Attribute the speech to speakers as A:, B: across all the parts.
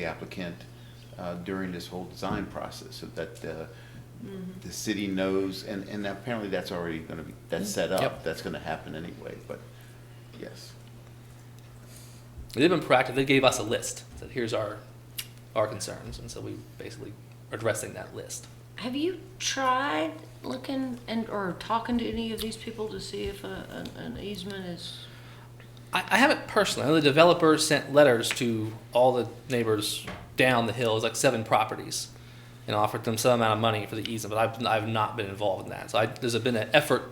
A: the applicant uh, during this whole design process, so that uh,
B: Mm-hmm.
A: the city knows, and, and apparently that's already gonna be, that's set up,
B: Mm-hmm. Yep.
A: that's gonna happen anyway, but, yes.
B: They've been proactive. They gave us a list. Said, here's our our concerns, and so we basically are addressing that list.
C: Have you tried looking and, or talking to any of these people to see if a, an, an easement is?
B: I, I haven't personally. I know the developer sent letters to all the neighbors down the hill. It was like seven properties, and offered them some amount of money for the easement. But I've, I've not been involved in that. So I, there's been an effort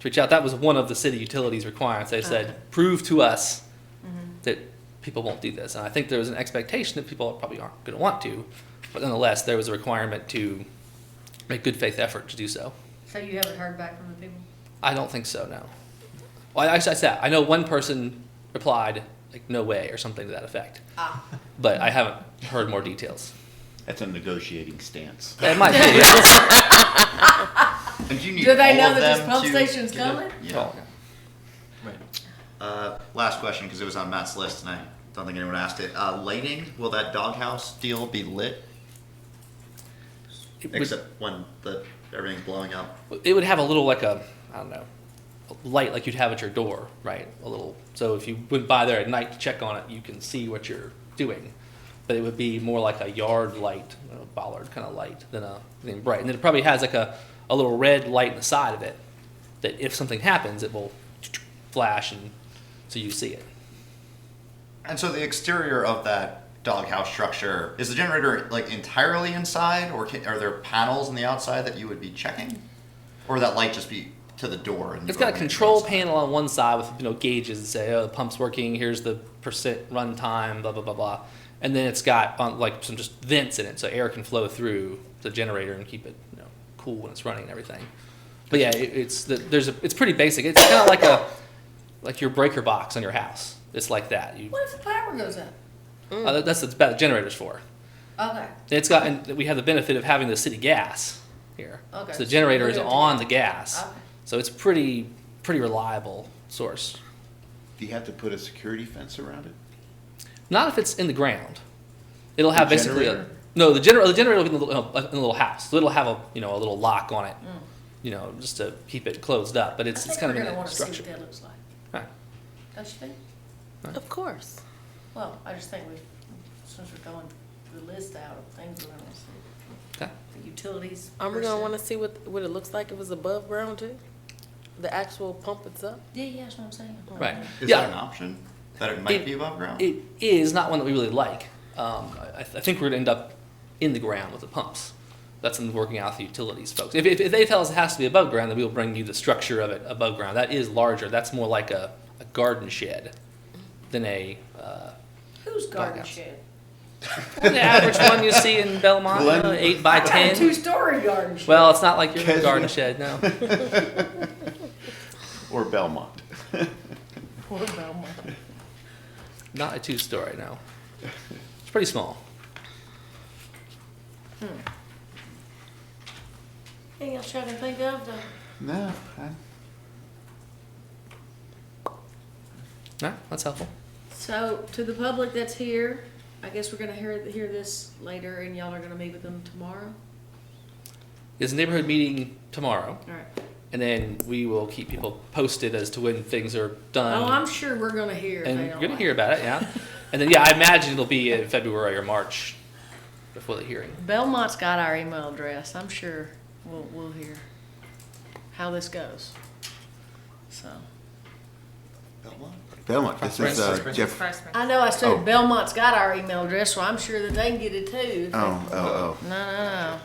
B: to reach out. That was one of the city utilities requirements. They said,
C: Okay.
B: prove to us
D: Mm-hmm.
B: that people won't do this. And I think there was an expectation that people probably aren't going to want to, but nonetheless, there was a requirement to make good faith effort to do so.
D: So you haven't heard back from the people?
B: I don't think so. No. Well, I, I said I know one person replied like "no way" or something to that effect,
D: Ah.
B: but I haven't heard more details.
A: That's a negotiating stance.
B: It might be.
E: And you need
D: Do they
E: all
D: know
E: of
D: that this
E: them
D: pump
E: to
D: station's
E: get it?
D: coming?
E: Yeah. Uh, last question, because it was on Matt's list, and I don't think anyone asked it. Uh, lighting, will that doghouse deal be lit?
B: It would,
E: Except when the everything's blowing up.
B: it would have a little like a I don't know light like you'd have at your door, right? A little. So if you went by there at night to check on it, you can see what you're doing. But it would be more like a yard light, a bollard kind of light than a than bright. And then it probably has like a, a little red light in the side of it that if something happens, it will flash and so you see it.
E: And so the exterior of that doghouse structure is the generator like entirely inside, or can, are there panels on the outside that you would be checking, or would that light just be to the door? And
B: It's
E: you
B: got a
E: only see
B: control
E: inside?
B: panel on one side with you know gauges that say, oh, the pump's working. Here's the percent run time, blah blah blah blah, and then it's got on, like some just vents in it, so air can flow through the generator and keep it you know cool when it's running and everything. But yeah, it, it's the, there's a, it's pretty basic. It's kind of like a like your breaker box on your house. It's like that. You,
D: What if the power goes out?
B: uh, that's what the generator's for.
D: Okay,
B: It's got and we have the benefit of having the city gas here.
D: Okay,
B: So the
D: so
B: generator
D: we're
B: is
D: good to
B: on
D: go.
B: the gas,
D: Okay.
B: so it's pretty pretty reliable source.
A: Do you have to put a security fence around it?
B: Not if it's in the ground. It'll have
A: The
B: basically a,
A: generator?
B: no. The generator the generator will be in the, little- in the little house. So it'll have a you know a little lock on it, you know, just to keep it closed up. But
D: Mm. I
B: it's it's
D: think
B: kind
D: we're
B: of in that
D: gonna wanna see
B: structure.
D: what that looks like,
B: Right.
D: don't you think?
C: Of course.
D: Well, I just think we, since we're going through the list out of things we're gonna see,
B: Okay.
D: the utilities.
F: I'm gonna
D: person.
F: wanna see what, what it looks like if it's above ground too? The actual pump itself?
D: Yeah, yeah, that's what I'm saying.
B: Right.
E: Is
B: yeah.
E: that an option? That it might
B: It-
E: be above ground.
B: It is not one that we really like. Um, I, I think we're gonna end up in the ground with the pumps. That's in working out with the utilities folks. If, if, if they tell us it has to be above ground, then we'll bring you the structure of it above ground. That is larger. That's more like a, a garden shed than a uh,
D: Who's garden
B: Doghouse.
D: shed?
B: the average one you see in Belmont,
A: Glen-
B: uh, eight by
D: I got a
B: ten.
D: two-story garden shed.
B: Well, it's not like your
A: Casual.
B: garden shed, no.
A: Or Belmont?
F: Poor Belmont.
B: Not a two-story, no. It's pretty small.
D: Anything else trying to think of, though?
A: No, I,
B: No, that's helpful.
D: So, to the public that's here, I guess we're gonna hear, hear this later, and y'all are gonna meet with them tomorrow?
B: There's a neighborhood meeting tomorrow,
D: All right.
B: and then we will keep people posted as to when things are done.
D: Oh, I'm sure we're gonna hear. if
B: Um, and
D: they
B: you're
D: don't
B: gonna
D: like
B: hear
D: it.
B: about it, yeah. and then, yeah, I imagine it'll be in February or March before the hearing.
D: Belmont's got our email address. I'm sure we'll we'll hear how this goes. So
E: Belmont?
A: Belmont, this is uh, Jeff,
D: I know I said
A: Oh.
D: Belmont's got our email address, so I'm sure that they can get it too. if they-
A: oh, oh,
D: No, no,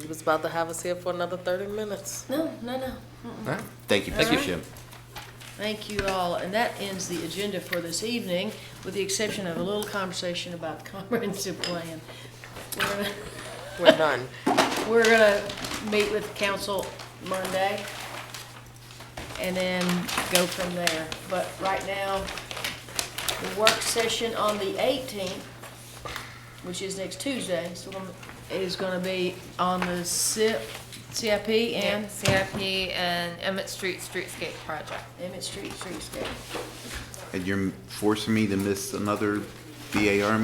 F: He was about to have us here for another thirty minutes.
D: no, no, no, no.
B: All right.
A: oh, thank you,
D: Thank
A: Mr.
D: you.
A: Shim.
D: Thank you all, and that ends the agenda for this evening, with the exception of a little conversation about the comprehensive plan. We're gonna,
F: We're done.
D: we're gonna meet with council Monday and then go from there. But right now, the work session on the eighteenth, which is next Tuesday, so we're- is gonna be on the CIP, CIP
G: and
D: and
G: CIP and Emmett Street Streetscape Project.
D: Emmett Street Streetscape.
A: And you're forcing me to miss another BAR